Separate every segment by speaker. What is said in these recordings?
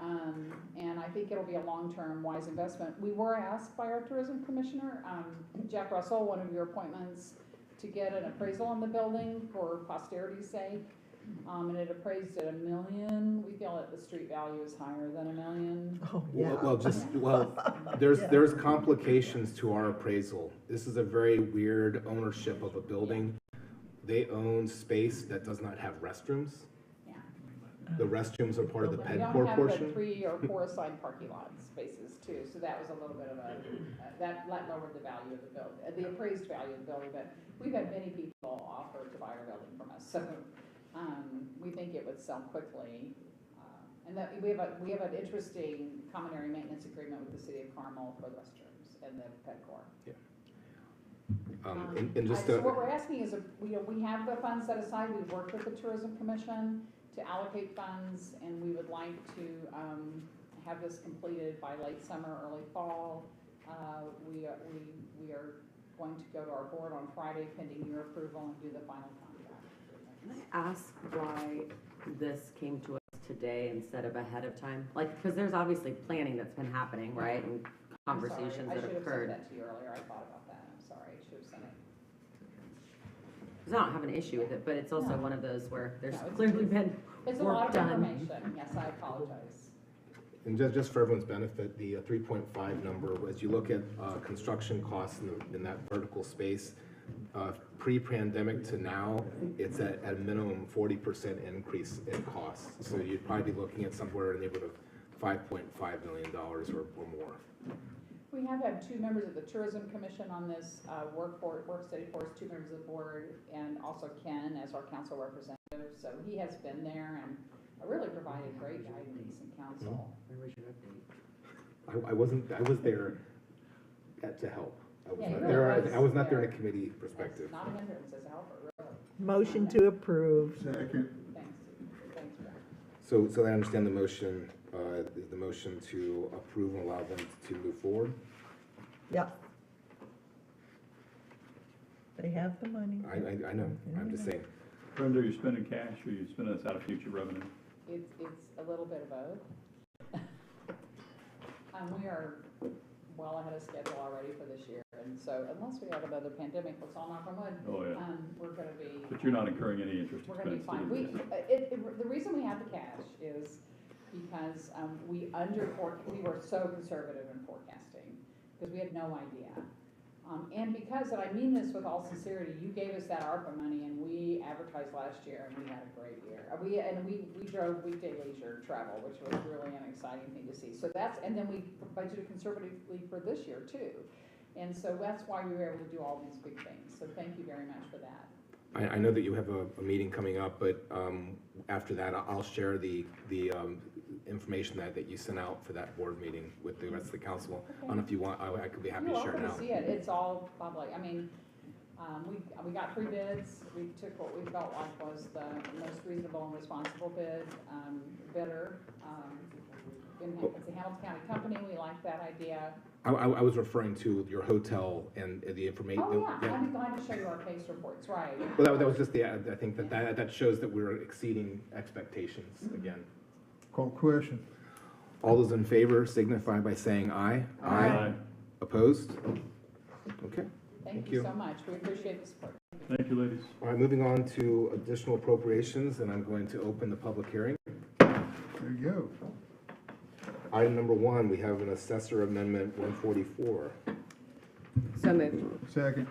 Speaker 1: um, think it'll be a long-term wise investment. We were asked by our tourism commissioner, um, Jack Russell, one of your appointments, to get an appraisal on the building for posterity's sake. Um, and it appraised at a million. We feel that the street value is higher than a million.
Speaker 2: Oh, yeah.
Speaker 3: Well, well, just, well, there's,
Speaker 2: Yeah.
Speaker 3: there's complications to our appraisal. This is a very weird ownership of a building. They own space that does not have restrooms.
Speaker 1: Yeah.
Speaker 3: The restrooms are part of the
Speaker 1: We
Speaker 3: ped
Speaker 1: don't
Speaker 3: core
Speaker 1: have the
Speaker 3: portion.
Speaker 1: three or four side parking lot spaces too, so that was a little bit of a, uh, that, that lowered the value of the building, the appraised value of the building, but we've had many people offer to buy our building from us, so, um, we think it would sell quickly. Uh, And that, we have a, we have an interesting common area maintenance agreement with the city of Carmel for the restrooms and the pet core.
Speaker 3: Um,
Speaker 1: Um,
Speaker 3: and, and
Speaker 1: I-
Speaker 3: just
Speaker 1: So what
Speaker 3: a,
Speaker 1: we're asking is, uh, we, you know, we have the funds set aside, we've worked with the tourism commission to allocate funds, and we would like to, um, have this completed by late summer, early fall. Uh, we are, we, we are going to go to our board on Friday pending your approval and do the final
Speaker 4: Can
Speaker 1: contract.
Speaker 4: I ask why this came to us today instead of ahead of time? Like, because there's obviously planning that's been happening, right, and
Speaker 1: I'm sorry,
Speaker 4: conversations that have
Speaker 1: I should have sent
Speaker 4: occurred.
Speaker 1: that to you earlier, I thought about that, I'm sorry, I should have sent it.
Speaker 4: 'Cause I don't have an issue with it, but it's also
Speaker 1: No.
Speaker 4: one of those where there's
Speaker 1: No, it's-
Speaker 4: clearly been,
Speaker 1: It's a
Speaker 4: Work
Speaker 1: lot of
Speaker 4: done.
Speaker 1: information, yes, I apologize.
Speaker 3: and just, just for everyone's benefit, the uh, three point five number, as you look at, uh, construction costs in, the- in that vertical space, uh, pre-pandemic to now, it's at, at a minimum forty percent increase in costs. So you'd probably be looking at somewhere in the neighborhood of five point five million dollars or, or more.
Speaker 1: We have had two members of the tourism commission on this, uh, work for, work study force, two members of the board, and also Ken as our council representative, so he has been there and really provided great guidance and counsel.
Speaker 3: I, I wasn't, I was there at, to help. I was
Speaker 1: Yeah,
Speaker 3: not
Speaker 1: you
Speaker 3: there,
Speaker 1: were.
Speaker 3: I- I was not there in a committee
Speaker 1: That's
Speaker 3: perspective.
Speaker 1: not a hindrance, as Albert, really,
Speaker 2: Motion to approve.
Speaker 5: Second.
Speaker 1: thanks, thanks, Brad.
Speaker 3: So, so I understand the motion, uh, is the motion to approve and allow them to move forward.
Speaker 2: Yep. They have the money.
Speaker 3: I, I, I know, I'm just saying.
Speaker 5: Brenda, are you spending cash or are you spending this out of future revenue?
Speaker 1: It's, it's a little bit of both. Um, we are well ahead of schedule already for this year, and so unless we have another pandemic, let's all knock on wood,
Speaker 5: Oh, yeah.
Speaker 1: um, we're gonna be.
Speaker 5: But you're not incurring any interest
Speaker 1: We're gonna be
Speaker 5: expense.
Speaker 1: fine.
Speaker 5: do
Speaker 1: We, uh,
Speaker 5: you?
Speaker 1: it, it, the reason we have the cash is because, um, we under fore- we were so conservative in forecasting, because we had no idea. Um, and because, and I mean this with all sincerity, you gave us that ARPA money and we advertised last year and we had a great year. Uh, We, and we, we drove weekday leisure travel, which was really an exciting thing to see. So that's, and then we budgeted conservatively for this year too. And so that's why we were able to do all these big things. So thank you very much for that.
Speaker 3: I, I know that you have a, a meeting coming up, but, um, after that, I- I'll share the, the, um, information that, that you sent out for that board meeting with the rest of the council. I don't know if you want, I, I could be happy to share
Speaker 1: You're
Speaker 3: now.
Speaker 1: welcome to see it, it's all public, I mean, um, we, we got three bids, we took what we felt like was the most reasonable and responsible bid, um, bidder. um, in Ha- It's a Hamilton County company, we like that idea.
Speaker 3: I, I, I was referring to your hotel and the information.
Speaker 1: Oh, yeah, I'd be glad to show you our case reports, right.
Speaker 3: Well, that, that was just the, ad. I think that, that, that shows that we're exceeding expectations
Speaker 1: Mm-hmm.
Speaker 3: again.
Speaker 6: Call question.
Speaker 3: All those in favor signify by saying aye.
Speaker 5: Aye.
Speaker 3: Opposed? Okay.
Speaker 1: Thank
Speaker 3: Thank
Speaker 1: you
Speaker 3: you.
Speaker 1: so much, we appreciate the support.
Speaker 5: Thank you, ladies.
Speaker 3: All right, moving on to additional appropriations, and I'm going to open the public hearing.
Speaker 6: There you go.
Speaker 3: Item number one, we have an assessor amendment one forty-four.
Speaker 4: so moved.
Speaker 6: Second.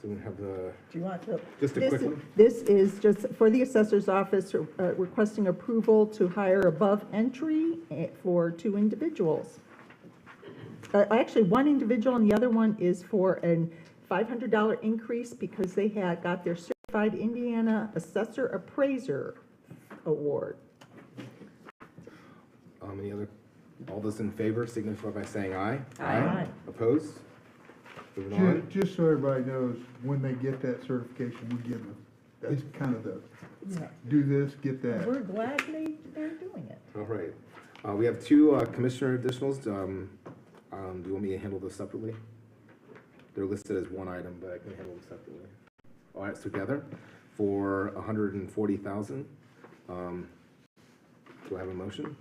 Speaker 3: So we have the,
Speaker 2: Do you want to?
Speaker 3: Just a
Speaker 2: This-
Speaker 3: quick one.
Speaker 2: This is just for the assessor's office, uh, requesting approval to hire above entry eh, for two individuals. Uh, Actually, one individual and the other one is for an $500 increase because they had, got their Certified Indiana Assessor Appraiser Award.
Speaker 3: um, any other, all those in favor signify by saying aye.
Speaker 4: Aye.
Speaker 2: Aye.
Speaker 3: Opposed? Moving
Speaker 6: Ju-
Speaker 3: on.
Speaker 6: Just so everybody knows, when they get that certification, we give them. That's kind of the, do this, get that.
Speaker 2: We're glad they, they're doing it.
Speaker 3: All right. Uh, we have two, uh, commissioner additionals. Um, um, do you want me to handle those separately? They're listed as one item, but I can handle them separately. All right, so together for a hundred and forty thousand. Um, do I have a motion?